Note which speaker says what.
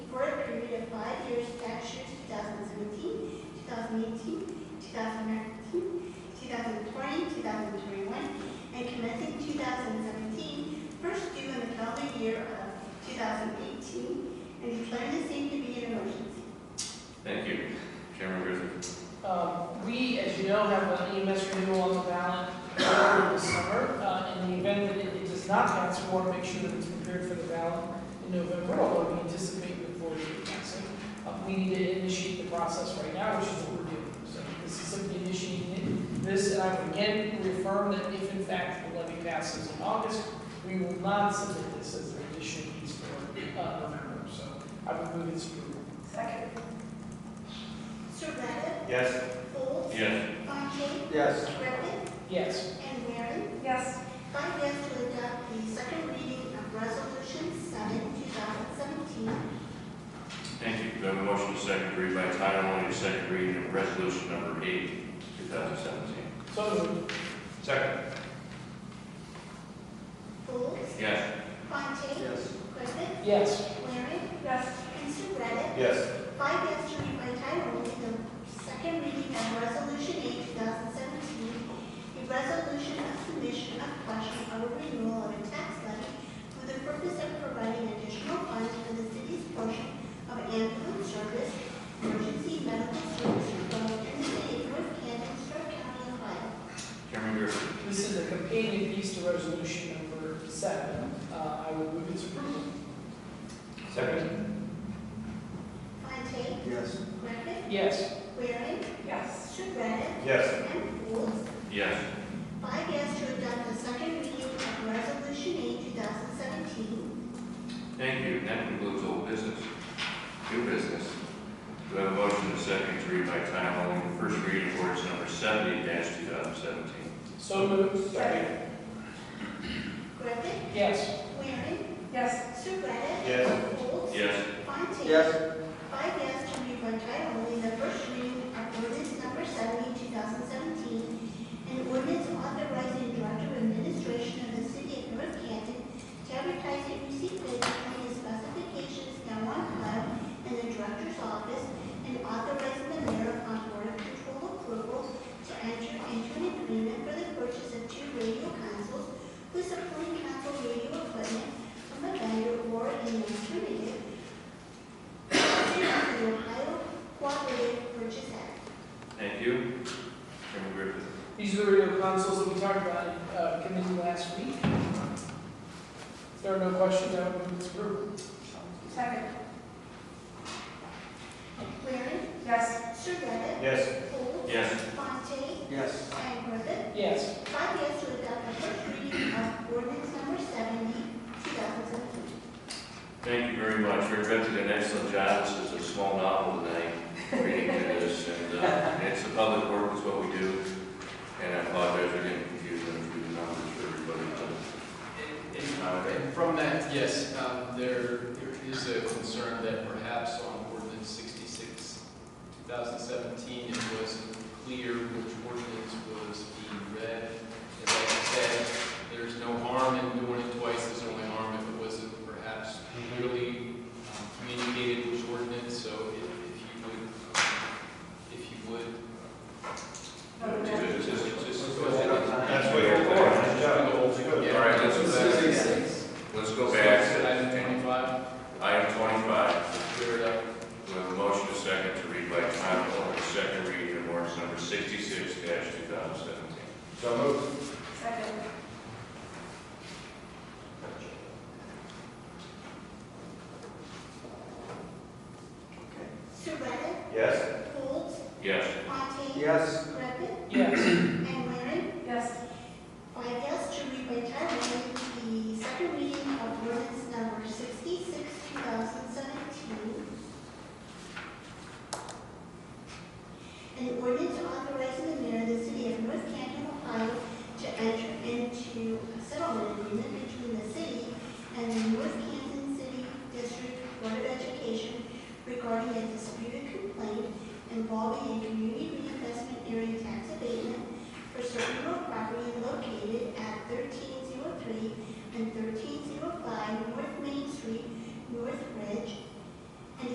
Speaker 1: 2018, 2019, 2020, 2021, and commencing 2017, first due in the calendar year of 2018, and declaring the same to be an emergency.
Speaker 2: Thank you. Chairman Griffin.
Speaker 3: Uh, We, as you know, have an EMS renewal on the ballot over the summer. Uh, In the event that it it does not pass, we want to make sure that it's prepared for the ballot in November, although we anticipate with voter passing. Uh, We need to initiate the process right now, which is what we're doing. So this is simply initiating it. this, and I would again reaffirm that if in fact the levy passes in August, we will not submit this as an additional piece for uh, November. So I would move its approval.
Speaker 1: Second. Surratt,
Speaker 4: Yes.
Speaker 1: Folds,
Speaker 2: Yes.
Speaker 1: Fontaine,
Speaker 4: Yes.
Speaker 1: Griffin,
Speaker 3: Yes.
Speaker 1: and Waring.
Speaker 5: yes,
Speaker 1: Five yes to adopt the second reading of Resolution 7, 2017.
Speaker 2: Thank you. Do I have a motion to second read by title only, the second reading of resolution number eight, 2017?
Speaker 3: So moved.
Speaker 2: Second.
Speaker 1: Folds,
Speaker 2: Yes.
Speaker 1: Fontaine,
Speaker 4: Yes.
Speaker 1: Griffin,
Speaker 3: Yes.
Speaker 1: Waring,
Speaker 5: yes,
Speaker 1: and Surratt.
Speaker 4: Yes.
Speaker 1: Five yes to read by title only the second reading of Resolution 8, 2017, a resolution of submission of question of a renewal of a tax levy for the purpose of providing additional funds for the city's portion of ambulance service, emergency medical service, provided in the city of North Canton, Stark County, Ohio.
Speaker 2: Chairman Griffin.
Speaker 3: This is a companion piece to resolution number seven. Uh, I would move its approval.
Speaker 2: Second.
Speaker 1: Fontaine,
Speaker 4: Yes.
Speaker 1: Griffith,
Speaker 3: Yes.
Speaker 1: Waring,
Speaker 5: yes,
Speaker 1: Surratt,
Speaker 4: Yes.
Speaker 1: and Folds.
Speaker 2: Yes.
Speaker 1: Five yes to adopt the second reading of Resolution 8, 2017.
Speaker 2: Thank you. That concludes old business. New business. Do I have a motion to second to read by title only, the first reading of ordinance number 70 2017?
Speaker 3: So moved.
Speaker 2: Second.
Speaker 1: Griffith,
Speaker 3: Yes.
Speaker 1: Waring,
Speaker 5: yes,
Speaker 1: Surratt.
Speaker 4: Yes.
Speaker 1: Folds.
Speaker 2: Yes.
Speaker 1: Fontaine.
Speaker 4: Yes.
Speaker 1: Five yes to read by title only the first reading of ordinance number 70, 2017, an ordinance authorizing director of administration of the city of North Canton to advertise and receive bids according to specifications now on file in the director's office and authorizing the mayor upon board of control approval to enter into an agreement for the purchase of two radio consoles with supporting console radio equipment from a vendor or an alternative the Ohio Cooperative Purchase Act.
Speaker 2: Thank you. Chairman Griffin.
Speaker 3: These are the radio consoles that we talked about in uh, committee last week. If there are no questions, I would move its approval.
Speaker 5: second,
Speaker 1: Waring,
Speaker 5: yes,
Speaker 1: Surratt,
Speaker 4: Yes.
Speaker 1: Folds,
Speaker 2: Yes.
Speaker 1: Fontaine,
Speaker 4: Yes.
Speaker 1: and Griffith.
Speaker 3: Yes.
Speaker 1: Five yes to adopt the first reading of ordinance number 70, 2017.
Speaker 2: Thank you very much. Your Griffin did an excellent job. This is a small novel tonight, reading through this. And uh, it's a public work, is what we do. And I apologize for getting confused on the numbers for everybody. uh, but It's not okay.
Speaker 6: And from that, yes, um, there, there is a concern that perhaps on ordinance sixty-six, two thousand seventeen, it wasn't clear which ordinance was being read. As I said, there's no harm in doing it twice, there's only harm if it wasn't perhaps clearly um, communicated which ordinance, so if, if you would, um, if you would. Just, just, just. go ahead and-
Speaker 4: That's what you're for. Nice job.
Speaker 6: Yeah.
Speaker 2: All right, let's go back.
Speaker 6: Sixty-six.
Speaker 2: Let's go back.
Speaker 6: Item twenty-five,
Speaker 2: Item twenty-five.
Speaker 6: clear it up.
Speaker 2: We have a motion to second to read by title only, the second reading of ordinance number sixty-six two thousand seventeen.
Speaker 4: So moved.
Speaker 5: second,
Speaker 1: Surratt,
Speaker 4: Yes.
Speaker 1: Folds,
Speaker 2: Yes.
Speaker 1: Fontaine,
Speaker 4: Yes.
Speaker 1: Griffith,
Speaker 3: Yes.
Speaker 1: and Waring.
Speaker 5: yes,
Speaker 1: Five yes to read by title only the second reading of ordinance number 66, 2017. An ordinance authorizing the mayor of the city of North Canton, Ohio, to enter into a settlement agreement between the city and the North Canton City District Board of Education regarding a disputed complaint involving a community reinvestment area tax abatement for certain real property located at thirteen zero three and thirteen zero five North Main Street, North Ridge,